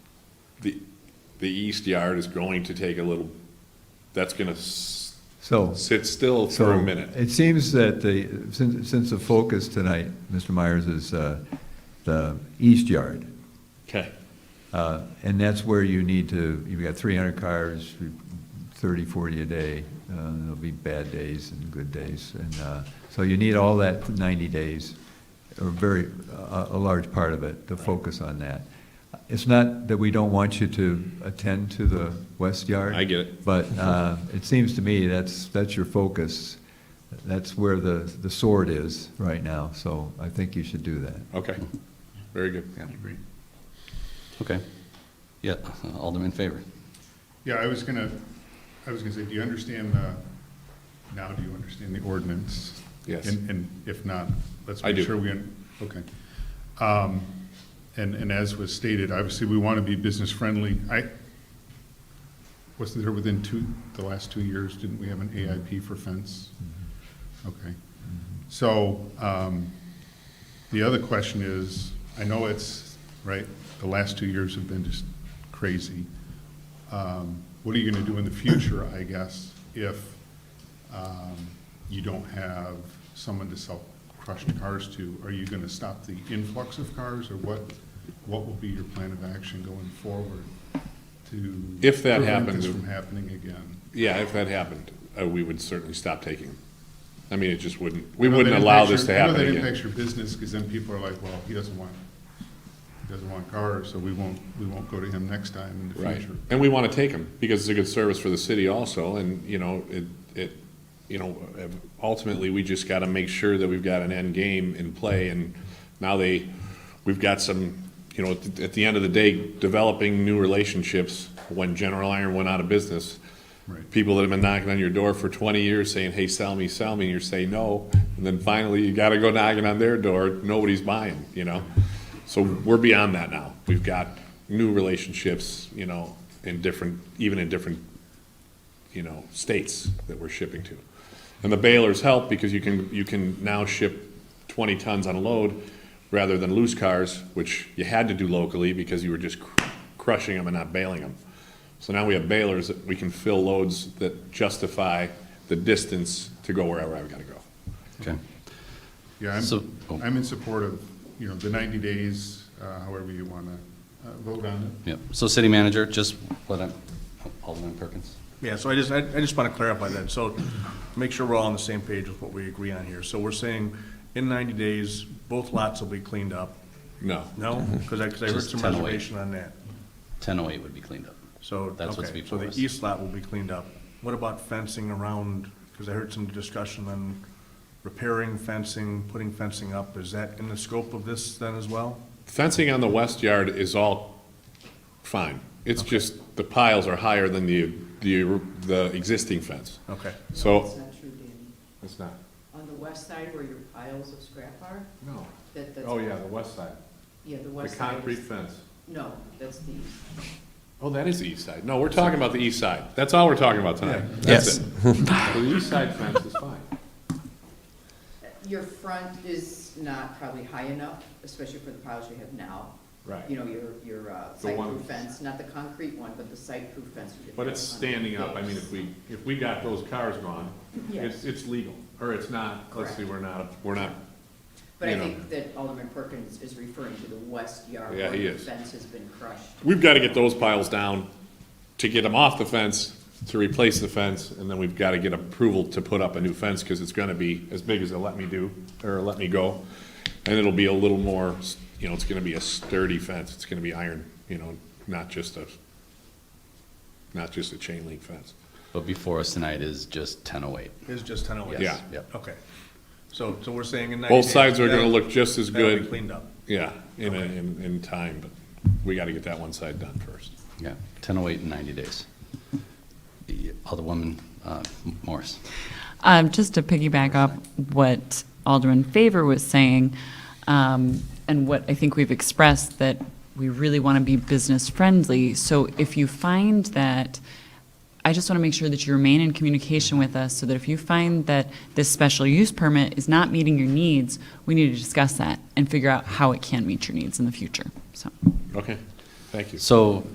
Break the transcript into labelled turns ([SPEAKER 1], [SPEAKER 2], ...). [SPEAKER 1] the, the east yard is going to take a little, that's gonna s-
[SPEAKER 2] So.
[SPEAKER 1] sit still for a
[SPEAKER 2] so
[SPEAKER 1] minute.
[SPEAKER 2] It seems that the, since, since the focus tonight, Mr. Myers, is uh, the east yard,
[SPEAKER 1] Okay.
[SPEAKER 2] uh, and that's where you need to, you've got 300 cars, 30, 40 a day, uh, there'll be bad days and good days, and uh, so you need all that 90 days, or very, a a large part of it, to focus on that. It's not that we don't want you to attend to the west yard.
[SPEAKER 1] I get it.
[SPEAKER 2] But uh, it seems to me that's, that's your focus, that's where the, the sword is right now, so I think you should do that.
[SPEAKER 1] Okay, very good.
[SPEAKER 2] Yeah.
[SPEAKER 3] Okay. Yeah, Alderman Faber.
[SPEAKER 4] Yeah, I was gonna, I was gonna say, do you understand the, now do you understand the ordinance?
[SPEAKER 1] Yes.
[SPEAKER 4] And, and if not, let's
[SPEAKER 1] I
[SPEAKER 4] make
[SPEAKER 1] do.
[SPEAKER 4] sure we, un- okay. Um, and, and as was stated, obviously, we want to be business friendly. I, wasn't there within two, the last two years, didn't we have an AIP for fence?
[SPEAKER 1] Mm-hmm.
[SPEAKER 4] Okay. So, um, the other question is, I know it's, right, the last two years have been just crazy. Um, What are you going to do in the future, I guess, if um, you don't have someone to sell crushed cars to? Are you going to stop the influx of cars, or what, what will be your plan of action going forward to?
[SPEAKER 1] If that
[SPEAKER 4] Prevent
[SPEAKER 1] happens-
[SPEAKER 4] this from happening again?
[SPEAKER 1] Yeah, if that happened, uh, we would certainly stop taking them. I mean, it just wouldn't, we
[SPEAKER 4] I know
[SPEAKER 1] wouldn't
[SPEAKER 4] that
[SPEAKER 1] allow
[SPEAKER 4] impacts
[SPEAKER 1] this to
[SPEAKER 4] your-
[SPEAKER 1] happen
[SPEAKER 4] I know that
[SPEAKER 1] again.
[SPEAKER 4] impacts your business, because then people are like, well, he doesn't want, he doesn't want cars, so we won't, we won't go to him next time in the
[SPEAKER 1] Right,
[SPEAKER 4] future.
[SPEAKER 1] and we want to take them, because it's a good service for the city also, and, you know, it, it, you know, ultimately, we just got to make sure that we've got an end game in play, and now they, we've got some, you know, at the- at the end of the day, developing new relationships, when General Iron went out of business,
[SPEAKER 4] Right.
[SPEAKER 1] people that have been knocking on your door for twenty years saying, hey, sell me, sell me, and you're saying no, and then finally, you got to go knocking on their door, nobody's buying, you know? So we're beyond that now. We've got new relationships, you know, in different, even in different, you know, states that we're shipping to. And the balers help because you can, you can now ship twenty tons on a load rather than loose cars, which you had to do locally because you were just cr- crushing them and not baling them. So now we have balers that we can fill loads that justify the distance to go wherever I've gotta go.
[SPEAKER 3] Okay.
[SPEAKER 4] Yeah,
[SPEAKER 3] So- oh.
[SPEAKER 4] I'm, I'm in support of, you know, the 90 days, uh, however you want to vote on it.
[SPEAKER 3] Yep. So city manager, just let him, Alderman Perkins.
[SPEAKER 5] Yeah, so I just, I I just want to clarify that, so make sure we're all on the same page with what we agree on here. So we're saying in 90 days, both lots will be cleaned up?
[SPEAKER 1] No.
[SPEAKER 5] No? Because I, because I heard
[SPEAKER 3] Mm-hmm. Just
[SPEAKER 5] some
[SPEAKER 3] 10 away.
[SPEAKER 5] reservation on that.
[SPEAKER 3] 1008 would be cleaned up.
[SPEAKER 5] So,
[SPEAKER 3] That's what's
[SPEAKER 5] okay, so
[SPEAKER 3] before
[SPEAKER 5] the
[SPEAKER 3] us.
[SPEAKER 5] east lot will be cleaned up. What about fencing around, because I heard some discussion on repairing fencing, putting fencing up. Is that in the scope of this then as well?
[SPEAKER 1] Fencing on the west yard is all fine. It's just the piles are higher than the, the, the existing fence.
[SPEAKER 5] Okay.
[SPEAKER 1] So-
[SPEAKER 6] That's not true, Danny.
[SPEAKER 1] It's not.
[SPEAKER 6] On the west side where your piles of scrap are,
[SPEAKER 1] No.
[SPEAKER 6] that,
[SPEAKER 1] Oh,
[SPEAKER 6] that's.
[SPEAKER 1] west side,
[SPEAKER 6] Yeah, the west side. is-
[SPEAKER 1] fence.
[SPEAKER 6] No, that's the east.
[SPEAKER 1] Oh, that is the east side. No, we're talking about the east side. That's all we're talking about tonight. That's it. The east side fence is fine.
[SPEAKER 6] Your front is not probably high enough, especially for the piles you have now.
[SPEAKER 1] Right.
[SPEAKER 6] You know, your, your uh,
[SPEAKER 1] The one-
[SPEAKER 6] site-proof fence, not the concrete one, but the site-proof fence. we did
[SPEAKER 1] But
[SPEAKER 6] have
[SPEAKER 1] it's
[SPEAKER 6] on
[SPEAKER 1] standing up. I mean, if we, if we got those cars gone, it's,
[SPEAKER 6] Yes.
[SPEAKER 1] it's legal, or it's not, let's see,
[SPEAKER 6] Correct.
[SPEAKER 1] we're not, we're not,
[SPEAKER 6] But I
[SPEAKER 1] you know.
[SPEAKER 6] think that Alderman Perkins is referring to the west yard.
[SPEAKER 1] Yeah,
[SPEAKER 6] where
[SPEAKER 1] he
[SPEAKER 6] the
[SPEAKER 1] is.
[SPEAKER 6] Fence has been crushed.
[SPEAKER 1] we've got to get those piles down to get them off the fence, to replace the fence, and then we've got to get approval to put up a new fence, because it's going to be as big as a let me do, or let me go. And it'll be a little more, you know, it's going to be a sturdy fence. It's going to be iron, you know, not just a, not just a chain link fence.
[SPEAKER 3] But before us tonight is just 1008.
[SPEAKER 5] It's just 10
[SPEAKER 3] Yes,
[SPEAKER 1] Yeah.
[SPEAKER 3] Yep.
[SPEAKER 5] Okay. So, so we're saying in 90 days.
[SPEAKER 1] Both sides are going to
[SPEAKER 5] that'll-
[SPEAKER 1] look just as
[SPEAKER 5] That'll be
[SPEAKER 1] good,
[SPEAKER 5] cleaned up.
[SPEAKER 1] yeah, in, a- in, in time, but we got to get that one side done first.
[SPEAKER 3] Yeah, 1008 in 90 days. The Alderwoman uh, Morris.
[SPEAKER 7] Um, just to piggyback up what Alderman Favor was saying, um, and what I think we've expressed, that we really want to be business friendly. So if you find that, I just want to make sure that you remain in communication with us so that if you find that this special use permit is not meeting your needs, we need to discuss that and figure out how it can meet your needs in the future, so.
[SPEAKER 1] Okay, thank you.
[SPEAKER 3] So